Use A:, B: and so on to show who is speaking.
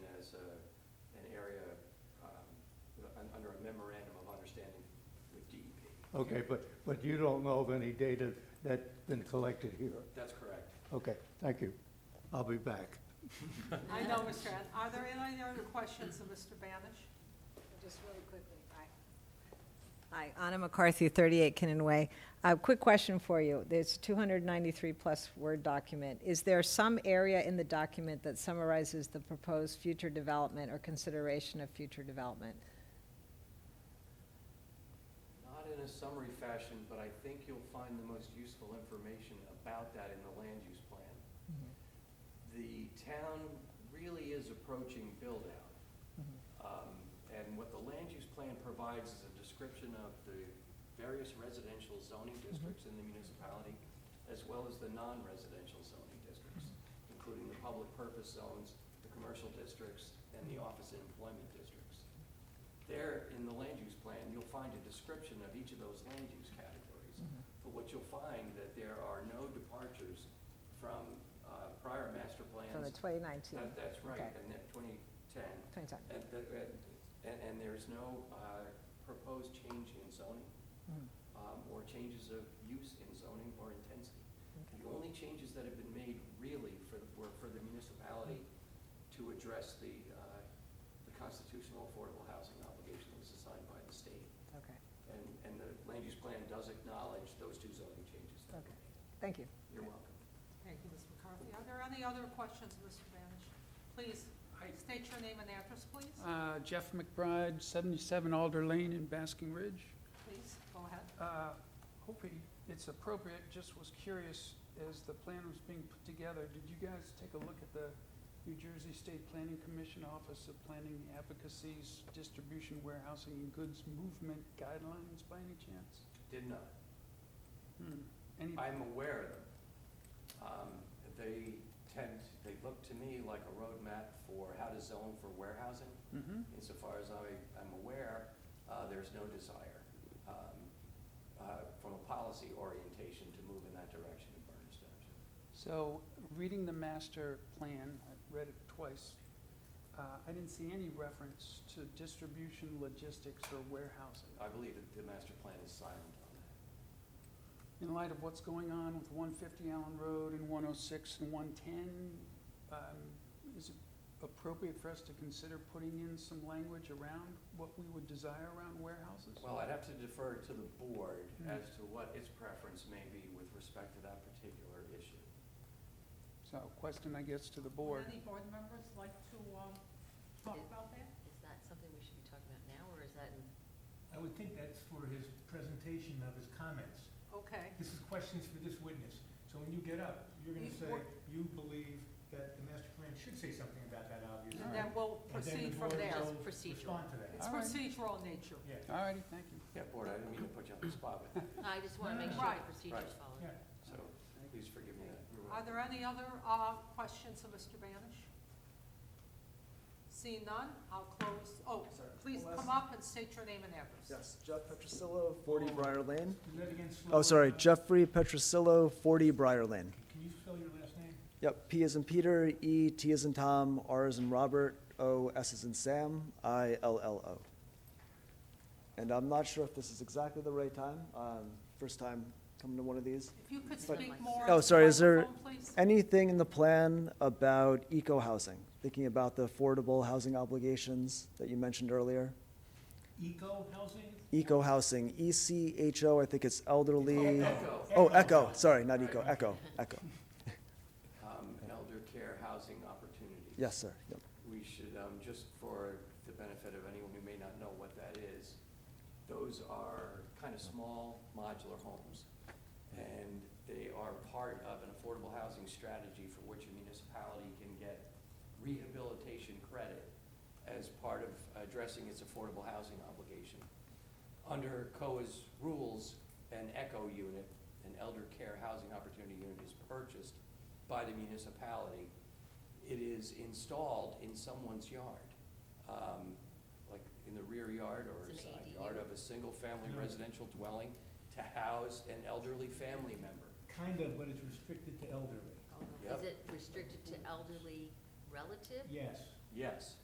A: um, under a memorandum of understanding with E DEP.
B: Okay, but, but you don't know of any data that's been collected here?
A: That's correct.
B: Okay, thank you. I'll be back.
C: I know, Mr. An, are there any other questions of Mr. Banish?
D: Just really quickly, Hi, Anna McCarthy, 38 Kinnan Way. A quick question for you. There's 293-plus word document. Is there some area in the document that summarizes the proposed future development or consideration of future development?
A: Not in a summary fashion, but I think you'll find the most useful information about that in the land use plan. The town really is approaching build-out.
E: Mm-hmm,
A: Um, And what the land use plan provides is a description of the various residential zoning
D: Mm-hmm.
A: districts in the municipality, as well as the non-residential zoning districts, including the public purpose zones, the commercial districts, and the office and employment districts. There, in the land use plan, you'll find a description of each of those land use categories.
E: mm-hmm.
A: But what you'll find that there are no departures from uh, prior master plans.
D: From the 2019?
A: That- That's right,
D: Okay.
A: and then 2010.
D: 2010.
A: And, the- and- and, and there's no uh, proposed change in zoning,
D: Mhm.
A: um, or changes of use in zoning or intensity. The only changes that have been made really for, were for the municipality to address the, uh, the constitutional affordable housing obligation that was assigned by the state.
D: Okay,
A: And, and the land use plan does acknowledge those two zoning changes. that were
D: Okay.
A: made.
D: thank you.
A: You're welcome.
C: Thank you, Ms. McCarthy. Are there any other questions of Mr. Banish? Please,
F: Hi.
C: state your name and address, please.
F: Uh, Jeff McBride, 77 Alder Lane in Basking Ridge.
C: Please, go ahead.
F: Uh, Hoping it's appropriate, just was curious, as the plan was being put together, did you guys take a look at the New Jersey State Planning Commission Office of Planning Advocacy's Distribution Warehousing and Goods Movement Guidelines by any chance?
A: Did not.
F: Hmm, Any,
A: I'm aware of them. Um, They tend, they look to me like a roadmap for how to zone for warehousing.
F: Mhm.
A: Insofar as I, I'm aware, uh, there's no desire, um, uh, from a policy orientation to move in that direction in Berners Township.
F: So, reading the master plan, I've read it twice, uh, I didn't see any reference to distribution, logistics, or warehousing.
A: I believe that the master plan is silent on that.
F: in light of what's going on with one fifty Allen Road and one oh six and one ten, um, is it appropriate for us to consider putting in some language around what we would desire around warehouses?
A: Well, I'd have to defer to the board
F: Hmm.
A: as to what its preference may be with respect to that particular issue.
F: So, question, I guess, to the board.
C: Would any board members like to um, talk about that?
E: Is that something we should be talking about now, or is that in?
G: I would think that's for his presentation of his comments.
C: Okay,
G: This is questions for this witness. So when you get up, you're gonna
C: You-
G: say, you believe that the master plan should say something about that, obviously.
C: and then we'll
G: And then
C: proceed
G: the
C: from
G: board
C: there.
G: will
E: Procedural.
G: Respond to that.
C: It's
F: All right.
C: procedural in nature.
G: Yeah,
F: All righty, thank you.
A: Yeah, board, I didn't mean to put you on the spot with that,
E: I just want to
G: No,
E: make
G: no,
E: sure
C: no.
E: the procedure's
A: Right.
E: followed.
G: yeah.
A: so please forgive me that. You're
C: Are
A: welcome.
C: there any other uh, questions of Mr. Banish? Seeing none, I'll close, oh,
H: Sorry, one
C: please
H: last-
C: come up and state your name and address.
H: Yes, Jeff Petrosillo, 40 Briar Lane.
G: Do that again slower.
H: Oh, sorry,
G: Uh,
H: Jeffrey Petrosillo, 40 Briar Lane.
G: Can you spell your last name?
H: Yep, P is in Peter, E, T is in Tom, R is in Robert, O, S is in Sam, I, L, L, O. And I'm not sure if this is exactly the right time, um, first time coming to one of these.
C: If you could
H: But-
C: speak more.
H: Oh,
C: into
H: sorry,
C: the
H: is there-
C: microphone, please?
H: Anything in the plan about eco-housing, thinking about the affordable housing obligations that you mentioned earlier?
G: Eco Housing?
H: Eco-housing, E C H O, I think it's elderly.
A: Echo.
H: Oh, echo, sorry, not eco, echo, echo.
A: um, elder care housing opportunities.
H: Yes, sir. Yep.
A: We should, um, just for the benefit of anyone who may not know what that is, those are kind of small modular homes. And they are part of an affordable housing strategy for which a municipality can get rehabilitation credit as part of addressing its affordable housing obligation. Under COA's rules, an ECHO unit, an elder care housing opportunity unit is purchased by the municipality. It is installed in someone's yard, um, like in the rear yard or
E: It's an
A: side
E: ADU.
A: yard of a single-family
G: Yeah.
A: residential dwelling to house an elderly family member.
G: Kind of, but it's restricted to elderly.
E: Oh,
A: Yep.
E: Is it restricted to elderly relatives?
G: Yes.
A: Yes.